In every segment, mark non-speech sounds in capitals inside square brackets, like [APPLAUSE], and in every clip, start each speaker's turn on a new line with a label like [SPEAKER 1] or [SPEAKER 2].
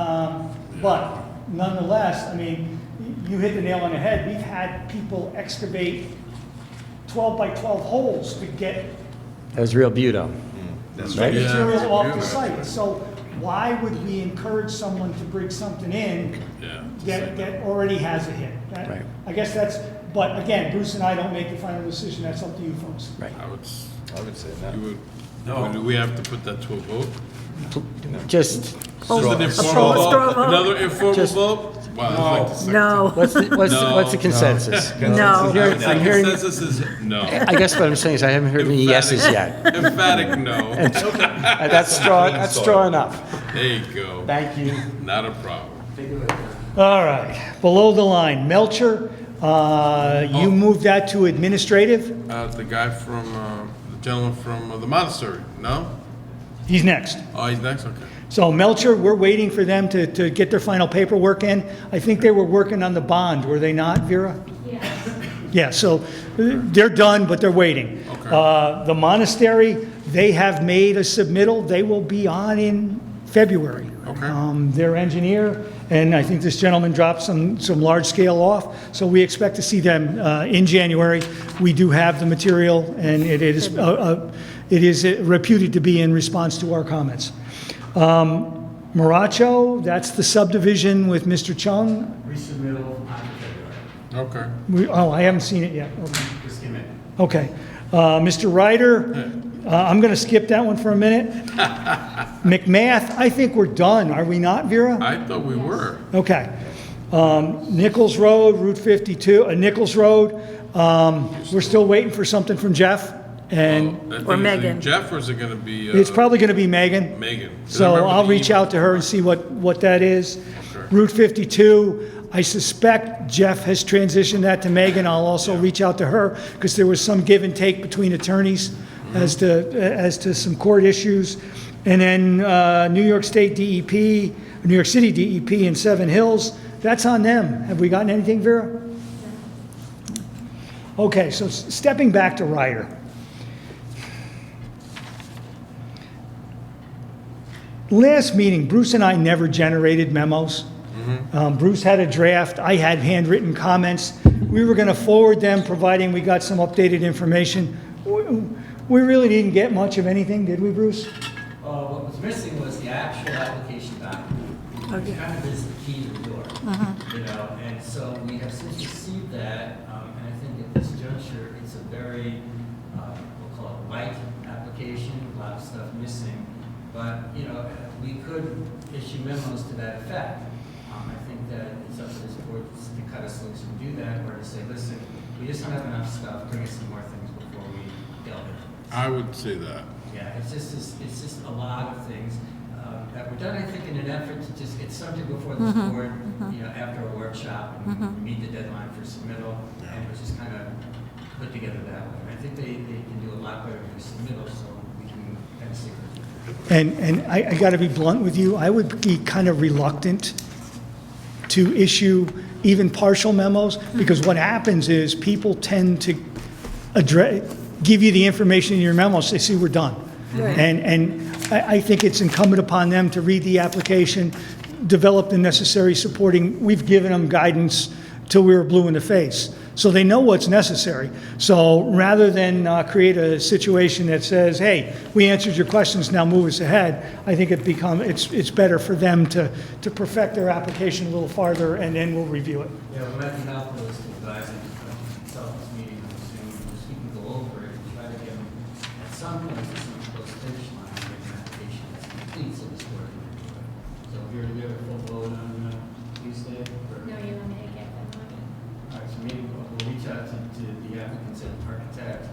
[SPEAKER 1] Um, But nonetheless, I mean, y- you hit the nail on the head. We've had people excavate 12 by 12 holes to get
[SPEAKER 2] That was real beautiful.
[SPEAKER 3] That's
[SPEAKER 2] Right.
[SPEAKER 3] right.
[SPEAKER 1] material off the
[SPEAKER 4] Yeah.
[SPEAKER 1] site. So why would we encourage someone to bring something in
[SPEAKER 4] Yeah.
[SPEAKER 1] that, that already has a hit? That-
[SPEAKER 2] Right.
[SPEAKER 1] I guess that's, but again, Bruce and I don't make the final decision. That's up to you folks.
[SPEAKER 2] Right.
[SPEAKER 4] I would, s-
[SPEAKER 3] I would say that.
[SPEAKER 4] you would,
[SPEAKER 5] No.
[SPEAKER 4] do we have to put that to a vote?
[SPEAKER 2] Just,
[SPEAKER 4] Just an informal
[SPEAKER 6] straw
[SPEAKER 4] vote?
[SPEAKER 6] vote.
[SPEAKER 4] Another informal
[SPEAKER 2] Just-
[SPEAKER 4] vote? Wow, I'd like to second
[SPEAKER 6] No,
[SPEAKER 2] what's, the- what's, the- what's the
[SPEAKER 4] [LAUGHS] No. [LAUGHS]
[SPEAKER 2] consensus?
[SPEAKER 6] no.
[SPEAKER 2] Here-
[SPEAKER 4] that.
[SPEAKER 2] I'm
[SPEAKER 4] The
[SPEAKER 2] hearing-
[SPEAKER 4] consensus is no.
[SPEAKER 2] I guess what I'm saying is I haven't heard any yeses yet.
[SPEAKER 4] Emphatic- Emphatic no.
[SPEAKER 2] Uh,
[SPEAKER 4] [LAUGHS]
[SPEAKER 2] That's strong, that's strong enough.
[SPEAKER 4] There you go.
[SPEAKER 2] Thank you.
[SPEAKER 4] Not a problem.
[SPEAKER 1] All right, below the line, Melcher, uh, you moved that to administrative?
[SPEAKER 4] Uh, the guy from, uh, the gentleman from uh, the monastery, no?
[SPEAKER 1] He's next.
[SPEAKER 4] Oh, he's next, okay.
[SPEAKER 1] So Melcher, we're waiting for them to, to get their final paperwork in. I think they were working on the bond, were they not, Vera? Yeah, so uh, they're done, but they're waiting.
[SPEAKER 4] Okay.
[SPEAKER 1] Uh, The monastery, they have made a submittal, they will be on in February.
[SPEAKER 4] Okay.
[SPEAKER 1] Um, Their engineer, and I think this gentleman dropped some, some large scale off, so we expect to see them uh, in January. We do have the material, and it is, uh, uh, it is reputed to be in response to our comments. Um, Moracho, that's the subdivision with Mr. Chung.
[SPEAKER 5] Resubmittal on February.
[SPEAKER 4] Okay.
[SPEAKER 1] We- Oh, I haven't seen it yet, okay.
[SPEAKER 5] Just give me a minute.
[SPEAKER 1] Okay. Uh, Mr. Ryder, uh, I'm going to skip that one for a
[SPEAKER 5] [LAUGHS]
[SPEAKER 1] minute. McMath, I think we're done, are we not, Vera?
[SPEAKER 4] I thought we were.
[SPEAKER 1] Okay. Um, Nichols Road, Route 52, uh, Nichols Road, um, we're still waiting for something from Jeff, and
[SPEAKER 4] Oh, I think
[SPEAKER 6] Or
[SPEAKER 4] it's like
[SPEAKER 6] Megan.
[SPEAKER 4] Jeff or is it gonna
[SPEAKER 5] Oh.
[SPEAKER 4] be? uh,
[SPEAKER 1] it's probably going to be Megan.
[SPEAKER 4] Megan. 'Cause I
[SPEAKER 1] So
[SPEAKER 4] remember
[SPEAKER 1] I'll
[SPEAKER 4] the
[SPEAKER 1] reach
[SPEAKER 4] email.
[SPEAKER 1] out to her and see what, what that is.
[SPEAKER 4] Sure.
[SPEAKER 1] Route 52, I suspect Jeff has transitioned that to Megan. I'll also reach out to her because there was some give and take between attorneys
[SPEAKER 4] Mm-hmm.
[SPEAKER 1] as to, as to some court issues. And then uh, New York State DEP, New York City DEP in Seven Hills, that's on them. Have we gotten anything, Vera? Okay, so s- stepping back to Ryder. Last meeting, Bruce and I never generated memos. Um, Bruce had a draft, I had handwritten comments. We were going to forward them, providing we got some updated information. W- We really didn't get much of anything, did we, Bruce?
[SPEAKER 7] Uh, what was missing was the actual application document, which kind of is the key to the door, you know, and so we have since received that, um, and I think at this juncture, it's a very, uh, we'll call it light application, a lot of stuff missing, but, you know, we could issue memos to that effect. Um, I think that it's up to this board to cut us loose and do that, or to say, listen, we just don't have enough stuff, bring us some more things before we delve into it.
[SPEAKER 4] I would say that.
[SPEAKER 7] Yeah, it's just, it's it's just a lot of things um, that were done, I think, in an effort to just get something before this board, you know, after a workshop, and meet the deadline for submittal, and it was just kind of put together that way. And I think they, they can do a lot better with submittal, so we can kind of see.
[SPEAKER 1] And, and I, I got to be blunt with you, I would be kind of reluctant to issue even partial memos, because what happens is people tend to address, give you the information in your memos, they see we're done. And, and I, I think it's incumbent upon them to read the application, develop the necessary supporting, we've given them guidance till we were blue in the face. So they know what's necessary. So rather than uh, create a situation that says, hey, we answered your questions, now move us ahead, I think it become, it's, it's better for them to, to perfect their application a little farther, and then we'll review it.
[SPEAKER 7] Yeah, we're at the mouth of this advising, this meeting, I'm assuming, just we can go over it, and try to get, at some point, to some close finish line, get an application that's complete, so this board can do it. So if you're, you have a full vote on uh, Tuesday, or?
[SPEAKER 8] No, you're gonna get that money.
[SPEAKER 7] All right, so maybe we'll we'll reach out to, to the applicants and architect,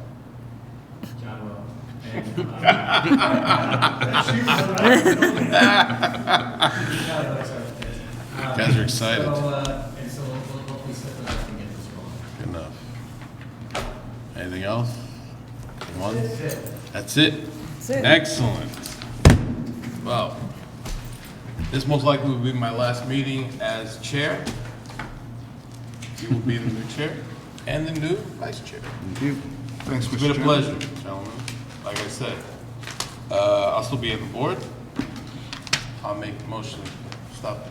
[SPEAKER 7] John Will. and, um, No, no, it's architect. Um,
[SPEAKER 4] Guys are excited.
[SPEAKER 7] So, uh, and so we'll, we'll hopefully set that up and get this rolling.
[SPEAKER 4] Enough. Anything else? One? That's it? That's it. Excellent. Well, this most likely will be my last meeting as chair. You will be the new chair and the new vice chair.
[SPEAKER 3] Thank you. Thanks, Mr.
[SPEAKER 4] It's been a
[SPEAKER 3] Chairman.
[SPEAKER 4] pleasure, gentlemen. Like I said, uh, I'll still be on the board. I'll make the motion stuff